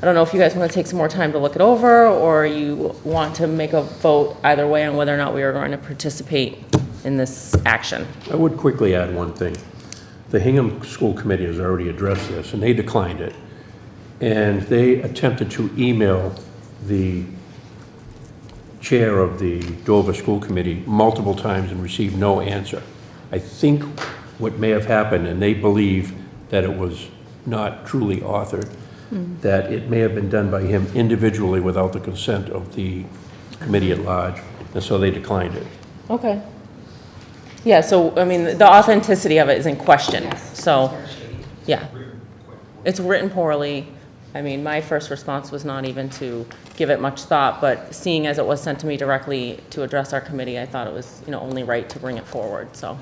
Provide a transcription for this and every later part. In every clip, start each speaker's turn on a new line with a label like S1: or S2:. S1: I don't know if you guys want to take some more time to look it over, or you want to make a vote either way on whether or not we are going to participate in this action.
S2: I would quickly add one thing. The Hingham School Committee has already addressed this, and they declined it. And they attempted to email the chair of the Dover School Committee multiple times and received no answer. I think what may have happened, and they believe that it was not truly authored, that it may have been done by him individually without the consent of the committee at large, and so they declined it.
S1: Okay. Yeah, so, I mean, the authenticity of it is in question, so, yeah. It's written poorly. I mean, my first response was not even to give it much thought, but seeing as it was sent to me directly to address our committee, I thought it was, you know, only right to bring it forward, so.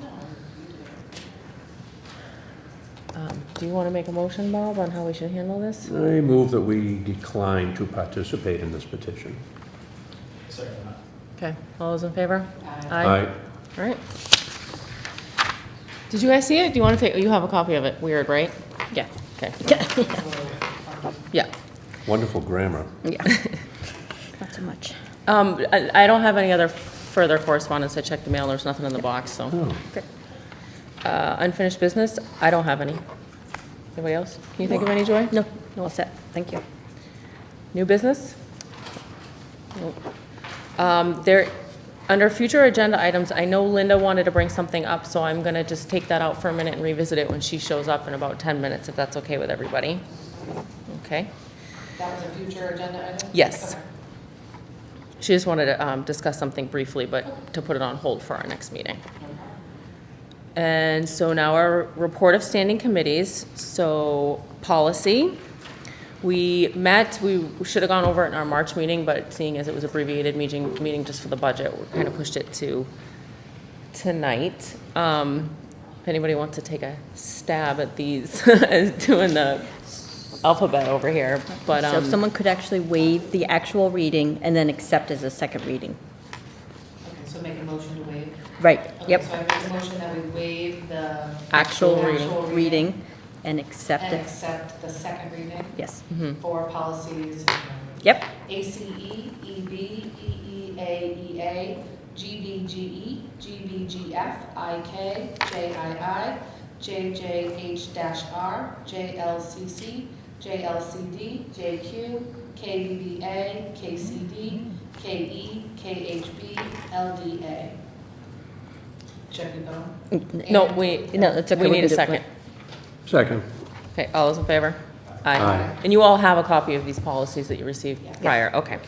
S1: Um, Do you want to make a motion, Bob, on how we should handle this?
S2: I move that we decline to participate in this petition.
S1: Okay, all those in favor?
S2: I
S1: All right. Did you guys see it? Do you want to take, you have a copy of it, weird, right? Yeah, okay. Yeah.
S2: Wonderful grammar.
S3: Not so much.
S1: Um, I, I don't have any other further correspondence, I checked the mail, there's nothing in the box, so.
S2: Oh,
S1: Uh, unfinished business, I don't have any. Anybody else? Can you think of any, Joy?
S3: No, no, all set. Thank you.
S1: New business? Nope. Um, There, under future agenda items, I know Linda wanted to bring something up, so I'm going to just take that out for a minute and revisit it when she shows up in about 10 minutes, if that's okay with everybody. Okay?
S4: That was a future agenda item?
S1: Yes.
S4: Okay.
S1: She just wanted to um, discuss something briefly, but to put it on hold for our next meeting. And so now our report of standing committees, so policy. We met, we should have gone over it in our March meeting, but seeing as it was abbreviated meeting, meeting just for the budget, we kind of pushed it to tonight. Um, If anybody wants to take a stab at these, as doing the alphabet over here, but.
S3: So
S1: um,
S3: if someone could actually waive the actual reading and then accept as a second reading.
S4: Okay, so make a motion to waive.
S3: Right,
S4: Okay,
S3: yep.
S4: So I make a motion that we waive the.
S1: Actual
S4: the
S1: reading.
S4: actual
S3: Reading and accept
S4: And
S3: it.
S4: accept the second reading
S3: Yes.
S1: Mm-hmm.
S4: for policies.
S3: Yep,
S4: ACE, EB, EEA, GBGE, GBGF, IK, JII, JJH-R, JLCC, JLCD, JQ, KBBA, KCD, KE, KHB, LDA. Check it out.
S1: No, we,
S3: No, that's okay,
S1: we
S3: we
S1: need a
S3: can do it.
S1: second.
S2: Second.
S1: Okay, all those in favor?
S2: Aye.
S1: And you all have a copy of these policies that you received prior, okay.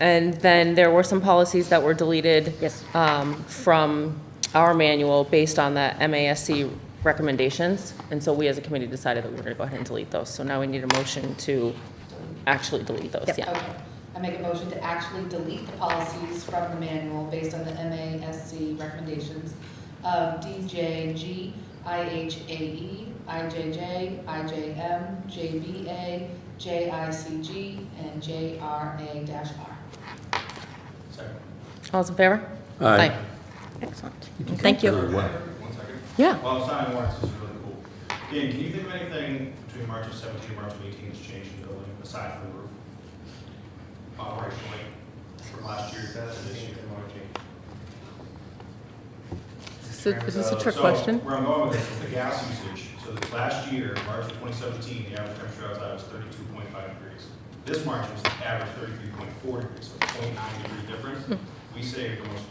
S1: And then there were some policies that were deleted.
S3: Yes.
S1: um, From our manual based on the MASC recommendations. And so we as a committee decided that we were going to go ahead and delete those. So now we need a motion to actually delete those,
S3: Yep.
S1: yeah.
S4: Okay, I make a motion to actually delete the policies from the manual based on the MASC recommendations of DJG, IHAE, IJJ, IJM, JBA, JICG, and JRA-R.
S1: All those in favor?
S2: Aye.
S3: excellent. Thank you.
S2: Very well.
S5: One second.
S1: Yeah.
S5: While I'm signing warrants, this is really cool. Dan, can you think of anything between March of 17 and March of 18 that's changed in the building aside from the roof? Operationally, from last year, that's an issue that might change.
S1: Is this a trick
S5: So,
S1: question?
S5: Where I'm going with this is the gas usage. So this last year, March of 2017, the average temperature outside was 32.5 degrees. This March was the average 33.4 degrees, so it's a 0.9 degree
S1: Hmm.
S5: difference. We saved almost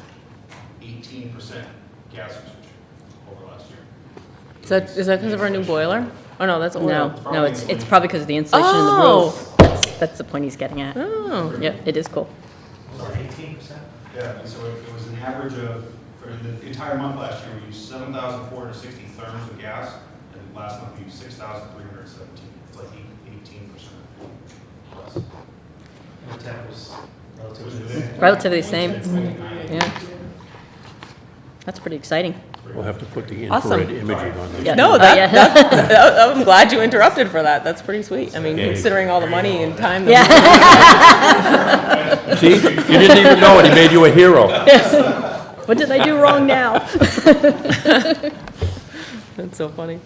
S5: 18% gas usage over last year.
S1: Is that, is that because of our new boiler? Oh, no, that's oil.
S3: No, no, it's, it's probably because of the insulation in the
S1: Oh.
S3: roof. That's, that's the point he's getting at.
S1: Oh,
S3: Yeah, it is cool.
S5: Yeah, and so it it was an average of, for the entire month last year, we used seven thousand four hundred sixty therms of gas, and last month we used six thousand three hundred seventeen. It's like eighteen percent plus.
S6: The tap was
S5: It was
S6: relatively.
S5: within-
S3: Relatively same.
S5: within 0.9.
S3: Yeah. That's pretty exciting.
S2: We'll have to put the
S1: Awesome.
S2: infrared imaging on this.
S3: Yeah.
S1: No,
S3: Oh,
S1: that-
S3: yeah.
S1: I'm glad you interrupted for that. That's pretty sweet. I mean,
S2: Yeah.
S1: considering all the money and time that
S3: Yeah,
S2: See, you didn't even know it, he made you a hero.
S3: what did I do wrong now?
S1: That's so funny.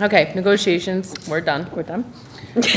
S1: Okay, negotiations, we're done.
S3: We're done.